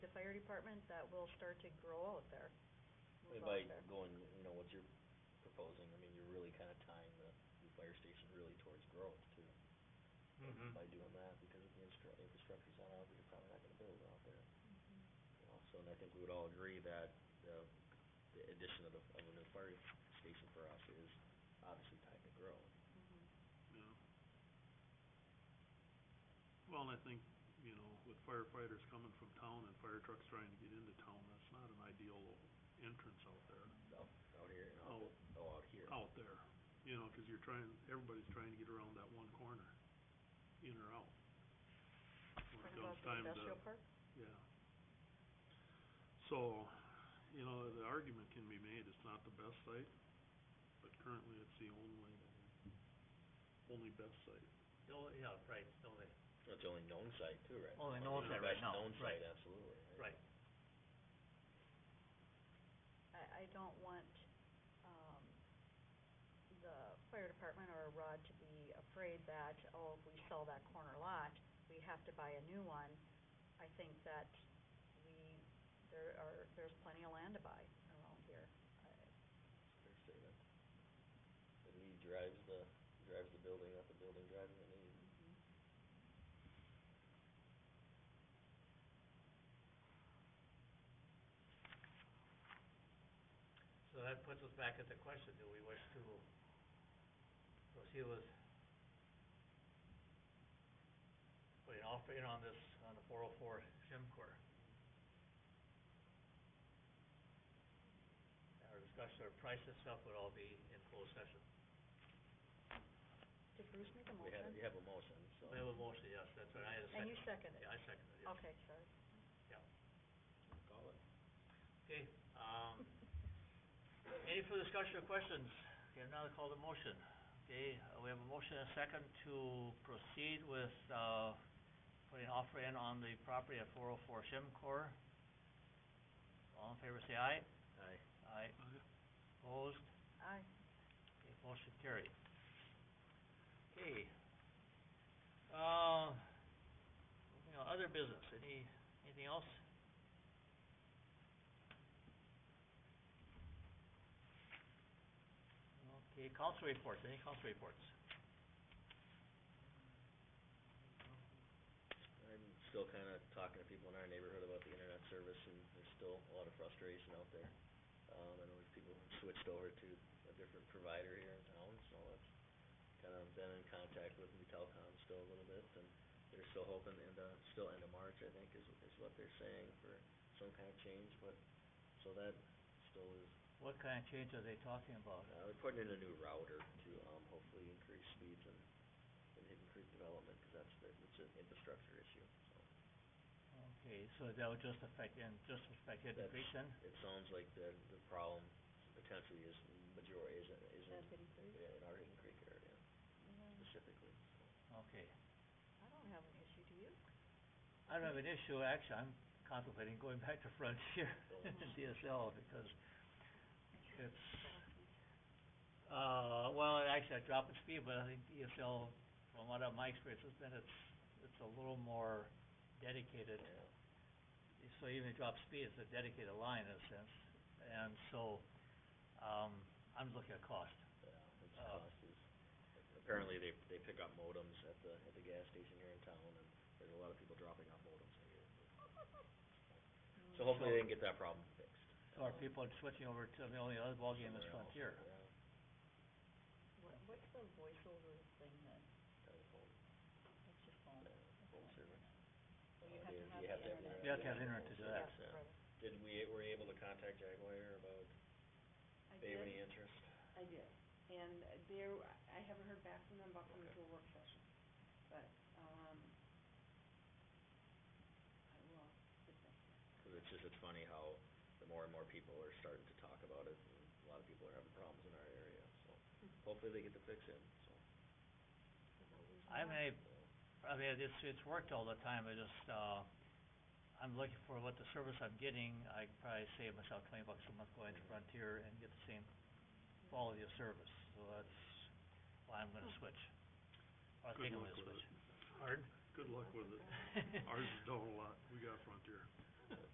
department that will start to grow out there. I mean, move out By there. going, you know, what you're proposing, I mean, you're really kinda tying the, the fire station really towards growth too. Mm-hmm. Mhm. By doing that, because if the instru- infrastructure's not out, you're probably not gonna build out there, you know, so, and I think we would all agree that the, the addition of the, of a new fire station for us is obviously tied to growth. Mhm. Yeah. Well, and I think, you know, with firefighters coming from town and fire trucks trying to get into town, that's not an ideal entrance out there, Out, out here, and out, oh, out here. out there. You know, 'cause you're trying, everybody's trying to get around that one corner, in or out. When it Talking comes about the time to- industrial park? yeah. So, you know, the argument can be made, it's not the best site, but currently it's the only, only best site. Oh, yeah, right, it's only, That's the only known site too, right? Only now. known Yeah, site right that's now, Known site, right. absolutely. right, I, I don't want, um, the fire department or Rod to be afraid that, oh, if we sell that corner lot, we have to buy a new one. I think that we, there are, there's plenty of land to buy around here. Uh, I- Fair statement. The need drives the, drives the building, not the building driving the need. so that puts us back at the question, do we wish to proceed with putting an offer in on this, on the four oh four Shimcor? Our discussion, our price and stuff would all be in closed session. Did Bruce make a We had, motion? we have a motion, so. We have a motion, yes, that's right, I had a And you second. seconded? Yeah, I seconded it, yes. Okay, sorry. Call it. Okay, um, any further discussion or questions? Okay, now I call the motion. Okay, uh, we have a motion and a second to proceed with, uh, putting an offer in on the property at four oh four Shimcor. All in favor, say aye. Aye. Aye. Opposed? Aye. Okay, motion carried. Okay. Uh, moving on, other business, any, anything else? Okay, council reports, any council reports? I'm still kinda talking to people in our neighborhood about the internet service, and there's still a lot of frustration out there. Um, I know there's people who've switched over to a different provider here in town, so I've kinda been in contact with New Telcom still a little bit, and they're still hoping end of, still end of March, I think, is, is what they're saying for some kind of change, but, so that still is What kind of change are they talking about? Uh, we're putting in a new router to, um, hopefully increase speeds and, and Hidden Creek development, cause that's the, it's an infrastructure issue, so. Okay, so that would just affect, and just affect Hidden Creek then? It sounds like the, the problem potentially is majority, is, is in, Deputy Bruce? yeah, in our Hidden Creek area Mhm. specifically, so. Okay. I don't have an issue, do you? I don't have an issue, actually, I'm contemplating going back to Frontier and DSL because it's, uh, well, it actually, I dropped the speed, but I think DSL, from what I- my experience has been, it's, it's a little more dedicated. Yeah. So even if you drop speed, it's a dedicated line in a sense. And so, um, I'm looking at cost. Yeah, it's Uh, cost is, apparently they, they pick up modems at the, at the gas station here in town, and there's a lot of people dropping off modems here. So hopefully they can get that problem fixed. So are people switching over to, the only other ballgame is Somewhere else, Frontier. yeah, What, what's the voiceover thing that, telephone, that's your phone? yeah, phone service. So you have Uh, to you- have the you have to have internet. internet. You have to have internet to do that. Yeah, Yeah. right. Did we, were you able to contact Jaguar about, I they have did, any interest? I did, and there, I haven't heard back from them about coming to a work session, but, um, I will, get back to you. Cause it's just, it's funny how the more and more people are starting to talk about it, and a lot of people are having problems in our area, so Mm-hmm. hopefully they get the fix in, so. I haven't had any I mean, it's, it's worked all the time, I just, uh, I'm looking for what the service I'm getting, I could probably save myself twenty bucks a month going to Frontier and get the same quality of service, so that's why I'm gonna switch. I Good think I'm luck gonna with switch. it. Hard? Good luck with it. Ours is down a lot, we got Frontier.